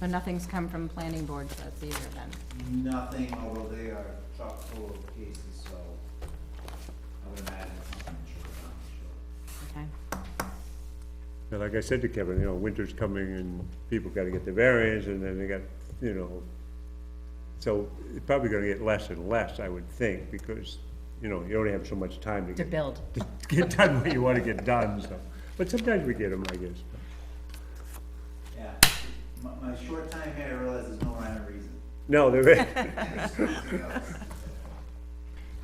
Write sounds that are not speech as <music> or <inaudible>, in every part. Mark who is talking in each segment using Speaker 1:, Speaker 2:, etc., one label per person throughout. Speaker 1: So nothing's come from planning board sets either then?
Speaker 2: Nothing, although they are chock full of cases, so I would imagine something should come, sure.
Speaker 1: Okay,
Speaker 3: And like I said to Kevin, you know, winter's coming and people gotta get their variance and then they got, you know, so it's probably gonna get less and less, I would think, because, you know, you only have so much time to
Speaker 1: to
Speaker 3: get,
Speaker 1: build.
Speaker 3: <laughs> to get done what you wanna get done, so. But sometimes we get them, I guess.
Speaker 2: Yeah, my, my short time here, I realize there's no rhyme or reason.
Speaker 3: No,
Speaker 1: <laughs>
Speaker 3: they're, yeah,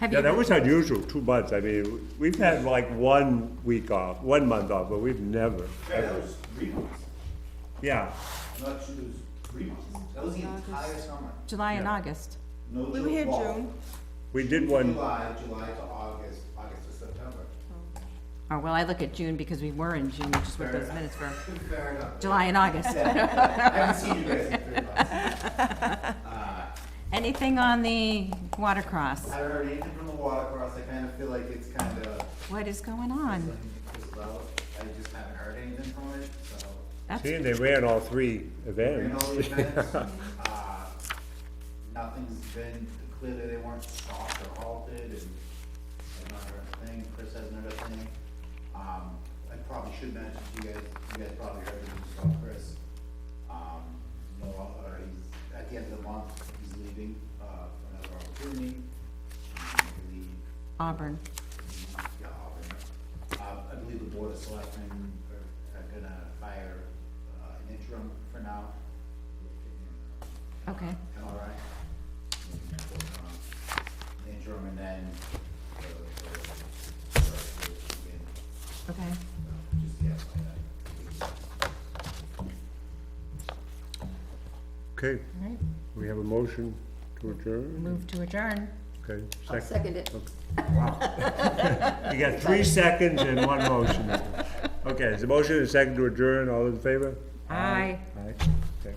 Speaker 1: Have you,
Speaker 3: that was unusual, two months, I mean, we've had like one week off, one month off, but we've never,
Speaker 2: Yeah, that was three months,
Speaker 3: yeah.
Speaker 2: not two, it was three months, that was the entire summer,
Speaker 1: July and
Speaker 3: Yeah.
Speaker 1: August?
Speaker 2: no
Speaker 4: We were here
Speaker 2: fall.
Speaker 4: June.
Speaker 3: We did one,
Speaker 2: July, July to August, August to September.
Speaker 1: Oh, well, I look at June because we were in June, just with those minutes for
Speaker 2: <laughs> Fair enough.
Speaker 1: July and
Speaker 3: <laughs>
Speaker 1: August.
Speaker 2: Yeah. I haven't seen you guys in three months. Uh,
Speaker 1: Anything on the water cross?
Speaker 2: I heard anything from the water cross, I kind of feel like it's kind of,
Speaker 1: What is going
Speaker 2: something
Speaker 1: on?
Speaker 2: that fizzled out. I just haven't heard anything from it, so.
Speaker 1: That's,
Speaker 3: see, and they ran all three
Speaker 2: Ran
Speaker 3: events. <laughs>
Speaker 2: all the events, uh, nothing's been, clear that they weren't stopped or halted, and I've not heard a thing, Chris hasn't heard a thing. Um, I probably should mention, to you guys, you guys probably heard the news about Chris. Um, no, or he's, at the end of the month, he's leaving, uh, for another opportunity. Um, I believe
Speaker 1: Auburn.
Speaker 2: yeah, Uh, I believe the board of selectmen are are gonna hire uh, an interim for now.
Speaker 1: Okay.
Speaker 2: Am I right? An Interim and then the, the, the, the,
Speaker 1: Okay.
Speaker 2: just the FYI.
Speaker 3: Okay,
Speaker 1: All right.
Speaker 3: we have a motion to adjourn.
Speaker 1: Move to adjourn.
Speaker 3: Okay,
Speaker 4: I'll
Speaker 3: second.
Speaker 4: second it.
Speaker 3: You got three seconds and one motion. Okay, is the motion and second to adjourn, all in favor?
Speaker 1: Aye.
Speaker 3: Aye, okay.